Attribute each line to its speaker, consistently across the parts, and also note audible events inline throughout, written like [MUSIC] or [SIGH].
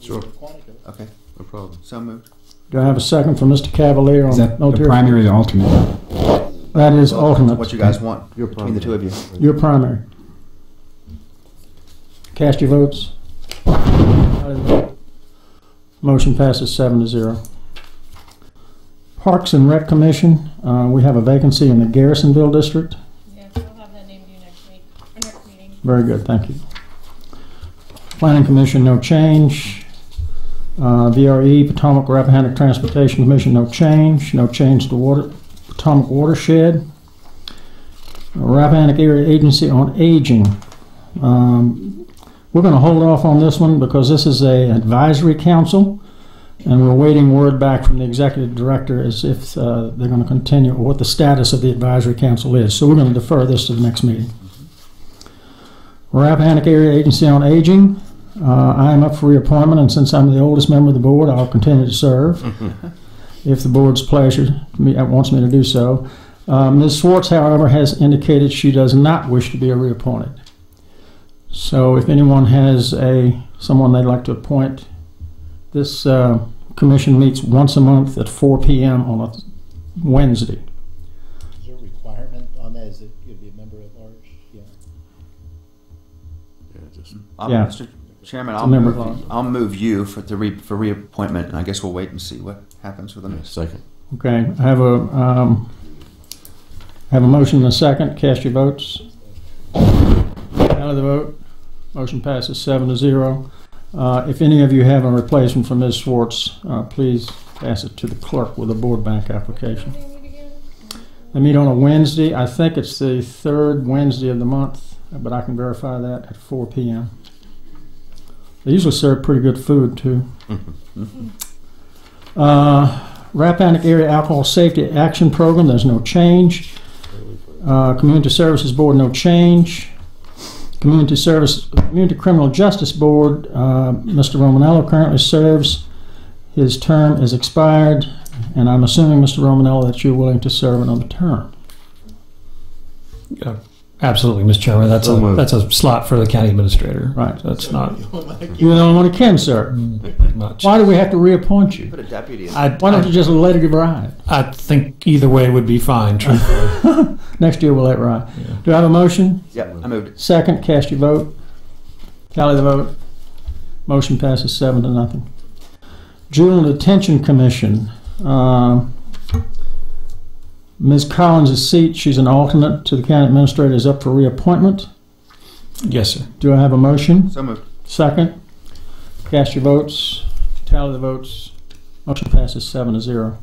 Speaker 1: Sure.
Speaker 2: Quantico.
Speaker 1: Okay,
Speaker 3: No problem.
Speaker 1: so moved.
Speaker 4: Do I have a second from Mr. Cavalier
Speaker 5: Is
Speaker 4: on
Speaker 5: that
Speaker 4: no
Speaker 5: the
Speaker 4: tier?
Speaker 5: primary or the alternate?
Speaker 4: That is
Speaker 1: Well, that's
Speaker 4: alternate,
Speaker 1: What you guys want
Speaker 3: Your
Speaker 1: between the two of you.
Speaker 4: your primary. Cast your votes. Motion passes seven to zero. Parks and Rec Commission, uh, we have a vacancy in the Garrisonville District.
Speaker 6: Yes, I'll have that named you next week, or next meeting.
Speaker 4: Very good, thank you. Planning Commission, no change. Uh, VRE, Potomac Rappahannock Transportation Commission, no change. No change to water, Potomac Watershed. Rappahannock Area Agency on Aging. Um, We're going to hold off on this one because this is a advisory council, and we're waiting word back from the executive director as if uh, they're going to continue, or what the status of the advisory council is. So we're going to defer this to the next meeting. Rappahannock Area Agency on Aging. Uh, I am up for reappointment, and since I'm the oldest member of the board, I'll continue to serve if the board's pleasure me, uh, wants me to do so. Uh, Ms. Schwartz, however, has indicated she does not wish to be reappointed. So, if anyone has a someone they'd like to appoint, this uh, commission meets once a month at 4 p.m. on a Wednesday.
Speaker 2: Is there a requirement on that? Is it you'd be a member at large? Yeah.
Speaker 3: Yeah, just
Speaker 1: I'll-
Speaker 4: Yeah.
Speaker 1: Mr. Chairman,
Speaker 4: It's a
Speaker 1: I'll
Speaker 4: member
Speaker 1: move,
Speaker 4: of-
Speaker 1: I'll move you for the re, for reappointment, and I guess we'll wait and see what happens with the next.
Speaker 3: second.
Speaker 4: Okay, I have a, um, I have a motion and a second. Cast your votes. Out of the vote. Motion passes seven to zero. Uh, if any of you have a replacement for Ms. Schwartz, uh, please pass it to the clerk with a board bank application.
Speaker 6: They meet again?
Speaker 4: They meet on a Wednesday. I think it's the third Wednesday of the month, but I can verify that at four PM. They usually serve pretty good food too. Uh, Rappahannock Area Alcohol Safety Action Program, there's no change. Uh, Community Services Board, no change. Community Service, Community Criminal Justice Board, uh, Mr. Romanello currently serves. His term is expired, and I'm assuming, Mr. Romanello, that you're willing to serve another term.
Speaker 7: Absolutely, Mr. Chairman. That's
Speaker 3: So
Speaker 7: a,
Speaker 3: moved.
Speaker 7: that's a slot for the county administrator.
Speaker 4: Right.
Speaker 7: That's not
Speaker 4: You're the only one who can serve.
Speaker 7: much.
Speaker 4: Why do we have to reappoint you?
Speaker 1: Put a deputy in.
Speaker 7: I,
Speaker 4: Why don't you
Speaker 7: I,
Speaker 4: just let it ride?
Speaker 7: I think either way would be fine, truthfully.
Speaker 4: Next year, we'll let it ride. Do I have a motion?
Speaker 1: Yep, I moved it.
Speaker 4: Second, cast your vote. Tally the vote. Motion passes seven to nothing. Juvenile Detention Commission. Um, Ms. Collins' seat, she's an alternate to the county administrator, is up for reappointment.
Speaker 7: yes, sir.
Speaker 4: Do I have a motion?
Speaker 1: So moved.
Speaker 4: Second. Cast your votes. Tally the votes. Motion passes seven to zero.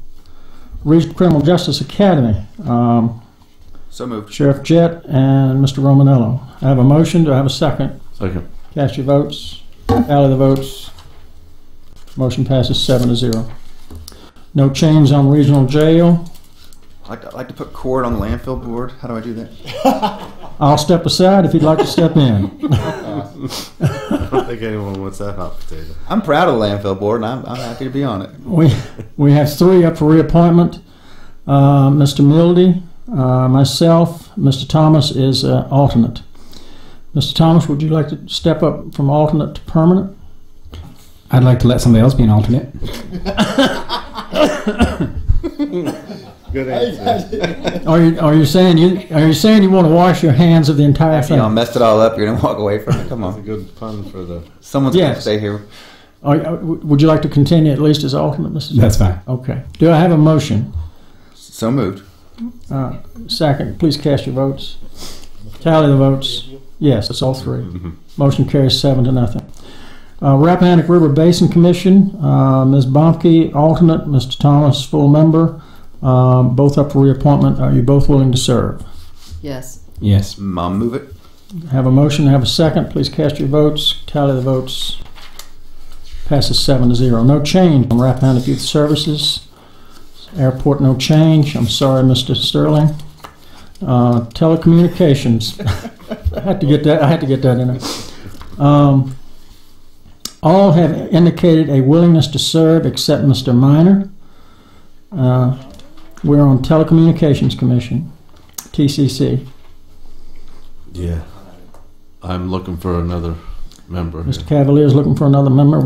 Speaker 4: Regional Criminal Justice Academy. Um,
Speaker 1: So moved.
Speaker 4: Sheriff Jett and Mr. Romanello. I have a motion. Do I have a second?
Speaker 3: Second.
Speaker 4: Cast your votes. Tally the votes. Motion passes seven to zero. No change on regional jail.
Speaker 1: I'd like, to- I'd like to put Cord on the landfill board. How do I do that?
Speaker 4: I'll step aside if you'd like to step in.
Speaker 3: I don't think anyone wants that hot potato.
Speaker 1: I'm proud of the landfill board, and I'm, I'm happy to be on it.
Speaker 4: We, we have three up for reappointment. Uh, Mr. Mildy, uh, myself, Mr. Thomas is uh, alternate. Mr. Thomas, would you like to step up from alternate to permanent?
Speaker 5: I'd like to let somebody else be an alternate.
Speaker 3: [LAUGHS] Good answer.
Speaker 4: Are you, are you saying you, are you saying you want to wash your hands of the entire
Speaker 1: You know, I
Speaker 4: thing?
Speaker 1: messed it all up. You're gonna walk away from it. Come
Speaker 3: That's a
Speaker 1: on,
Speaker 3: good pun for the.
Speaker 1: someone's gonna
Speaker 4: Yes.
Speaker 1: stay here.
Speaker 4: Are you- uh, Would you like to continue at least as alternate, Mrs.
Speaker 5: That's fine.
Speaker 4: Okay. Do I have a motion?
Speaker 1: So moved.
Speaker 4: Uh, Second, please cast your votes. Tally the votes. Yes, it's all three. Motion carries seven to nothing. Uh, Rappahannock River Basin Commission, uh, Ms. Bomke, alternate, Mr. Thomas, full member, um, both up for reappointment. Are you both willing to serve?
Speaker 8: Yes.
Speaker 5: Yes.
Speaker 1: Mom, move it.
Speaker 4: Have a motion, have a second. Please cast your votes. Tally the votes. Passes seven to zero. No change on Rappahannock Youth Services. Airport, no change. I'm sorry, Mr. Sterling. Uh, telecommunications. [LAUGHS] I had to get that, I had to get that in there. Um, all have indicated a willingness to serve except Mr. Minor. Uh, we're on Telecommunications Commission, TCC.
Speaker 3: Yeah. I'm looking for another member. here.
Speaker 4: Mr. Cavalier's looking for another member.